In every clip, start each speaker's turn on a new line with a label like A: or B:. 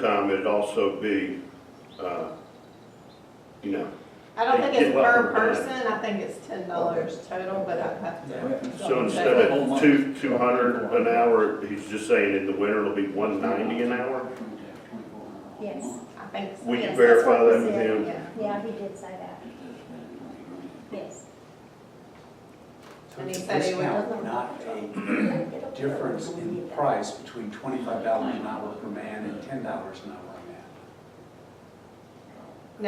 A: time, it'd also be, uh, you know,
B: I don't think it's
A: Get what
B: per
A: we're doing.
B: person, I think it's ten dollars total, but I have to.
A: so instead of two, two hundred an hour, he's just saying in the winter it'll be one ninety an hour?
C: Yes,
B: I think so.
A: Will you
C: Yes, that's
A: verify
C: what we
A: that with
C: said,
A: him?
B: Yeah,
C: yeah, he did say that, yes.
B: And he said he would-
D: Discount, Not a difference in price between twenty-five dollars an hour per man and ten dollars an hour per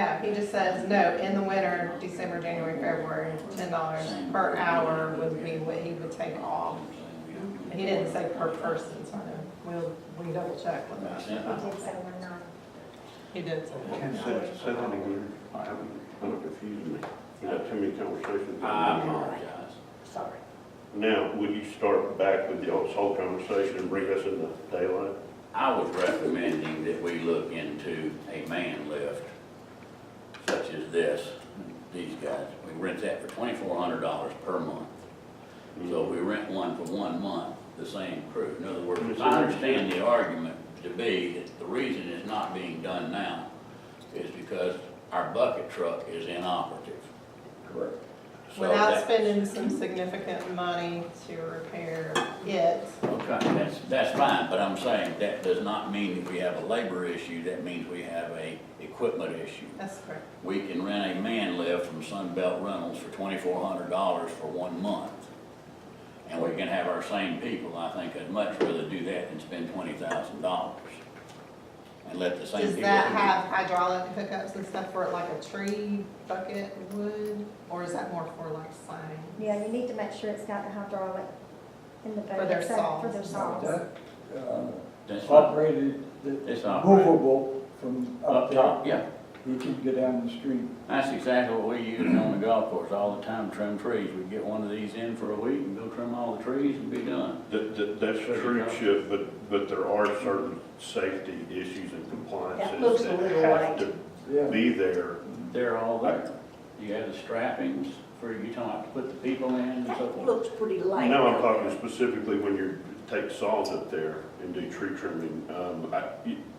D: man.
B: no, he just says, no, in the winter, December, January, February, ten dollars per hour would be what he would take off. He didn't say per person, so I don't- we'll, we double check with
C: He
B: that.
C: did say one nine.
B: He did say that.
D: Ten
A: Say-
D: dollars.
A: say that again. Kind of confused me. You had too many conversations.
D: I apologize.
B: Sorry.
A: Now, would you start back with the whole conversation and bring us in the daylight?
E: I was recommending that we look into a man lift such as this, these guys. We rent that for twenty-four hundred dollars per month. So we rent one for one month, the same crew. In other words, I understand the argument to be that the reason it's not being done now is because our bucket truck is inoperative. Correct. So
B: Without
E: that,
B: spending some significant money to repair it,
E: okay, that's, that's fine, but I'm saying that does not mean that we have a labor issue. That means we have a equipment issue.
B: that's correct.
E: We can rent a man lift from Sunbelt Rentals for twenty-four hundred dollars for one month. And we can have our same people, I think I'd much rather do that than spend twenty thousand dollars. And let the same
B: Does
E: people.
B: that have hydraulic hookups and stuff for it, like a tree, bucket, wood, or is that more for like sign?
C: Yeah, you need to make sure it's got the hydraulic in the boat.
B: For their
C: so-
B: saws.
C: For their saws.
F: That, uh,
E: That's not,
F: Operated, the
E: it's not.
F: movable from
E: Up
F: up
E: top,
F: there,
E: yeah,
F: you can go down the street.
E: that's exactly what we use on the golf course all the time, trim trees. We get one of these in for a week and go trim all the trees and be done.
A: That, that, that's true, Chip, but, but there are certain safety issues and
G: That
A: compliances
G: looks a
A: that
G: little
A: have
G: light.
A: to
F: Yeah,
A: be there
E: They're all there. You have the strappings for, you talking about to put the people in and so
G: That
E: forth.
G: looks pretty light.
A: No, I'm talking specifically when you take saws up there and do tree trimming. Um, I,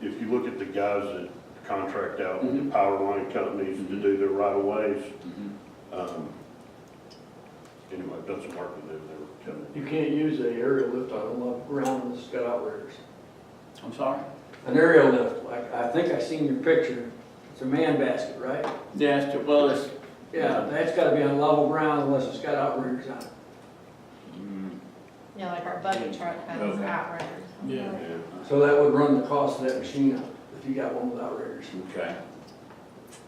A: if you look at the guys that contract out with the
E: Mhm.
A: power line companies to do their right of ways,
E: Mhm.
A: um, anyway, I've done some work with them, they were telling me.
H: You can't use a aerial lift on them up around that's got outriggers.
E: I'm sorry?
H: An aerial lift, like, I think I seen your picture, it's a man basket, right?
E: Yes, well, it's,
H: Yeah, that's gotta be on level ground unless it's got outriggers on it.
E: Mm,
B: Yeah, like our bucket truck has
E: Okay.
B: outriggers.
C: Yeah.
A: Yeah.
H: So that would run the cost of that machine up, if you got one with outriggers.
E: Okay,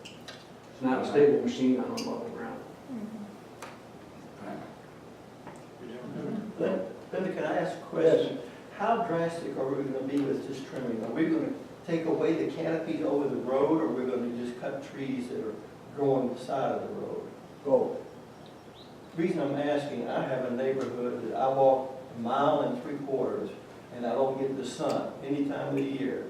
H: It's not a stable machine on level ground.
C: Mhm.
I: Linda, can I ask a question? How drastic are we gonna be with this trimming? Are we gonna take away the canopy over the road, or we're gonna just cut trees that are growing the side of the road?
F: go.
I: Reason I'm asking, I have a neighborhood that I walk a mile and three quarters, and I don't get the sun any time of the year.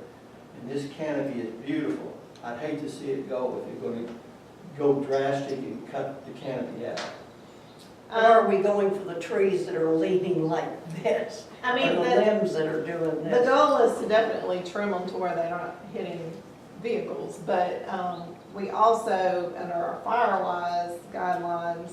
I: And this canopy is beautiful. I'd hate to see it go if you're gonna go drastic and cut the canopy out.
G: Or are we going for the trees that are leaning like this?
B: Um, I
G: Or
B: mean,
G: the
B: the,
G: limbs that are doing
B: the
G: this?
B: goal is to definitely trim them to where they're not hitting vehicles, but, um, we also, under our firewise guidelines,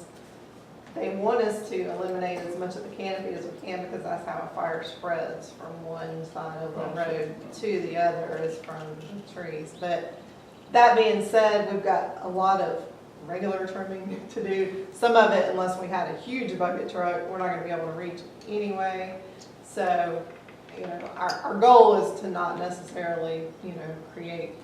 B: they want us to eliminate as much of the canopy as we can, because that's how a fire spreads from one side of the road to the other is from the trees. But that being said, we've got a lot of regular trimming to do. Some of it, unless we had a huge bucket truck, we're not gonna be able to reach anyway. So, you know, our, our goal is to not necessarily, you know, create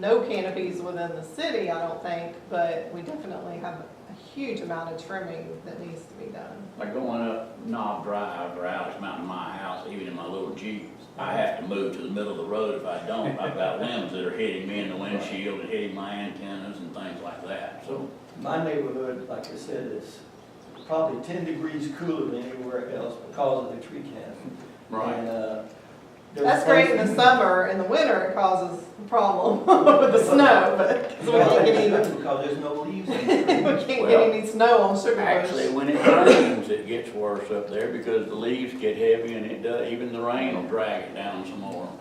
B: no canopies within the city, I don't think, but we definitely have a huge amount of trimming that needs to be done.
E: like going up Knob Drive or Alex Mountain, my house, even in my little Jeep, I have to move to the middle of the road if I don't. I've got limbs that are hitting me in the windshield and hitting my antennas and things like that, so.
I: My neighborhood, like I said, is probably ten degrees cooler than anywhere else because of the tree canopy. And, uh, there's
B: That's great in the
I: places-
B: summer, in the winter it causes a problem with the snow, but, 'cause we can't get any,
I: Because there's no leaves in
B: we
I: the tree.
B: can't get any snow on sugar
E: Actually,
B: bush.
E: when it rains, it gets worse up there because the leaves get heavy and it does, even the rain will drag it down some more.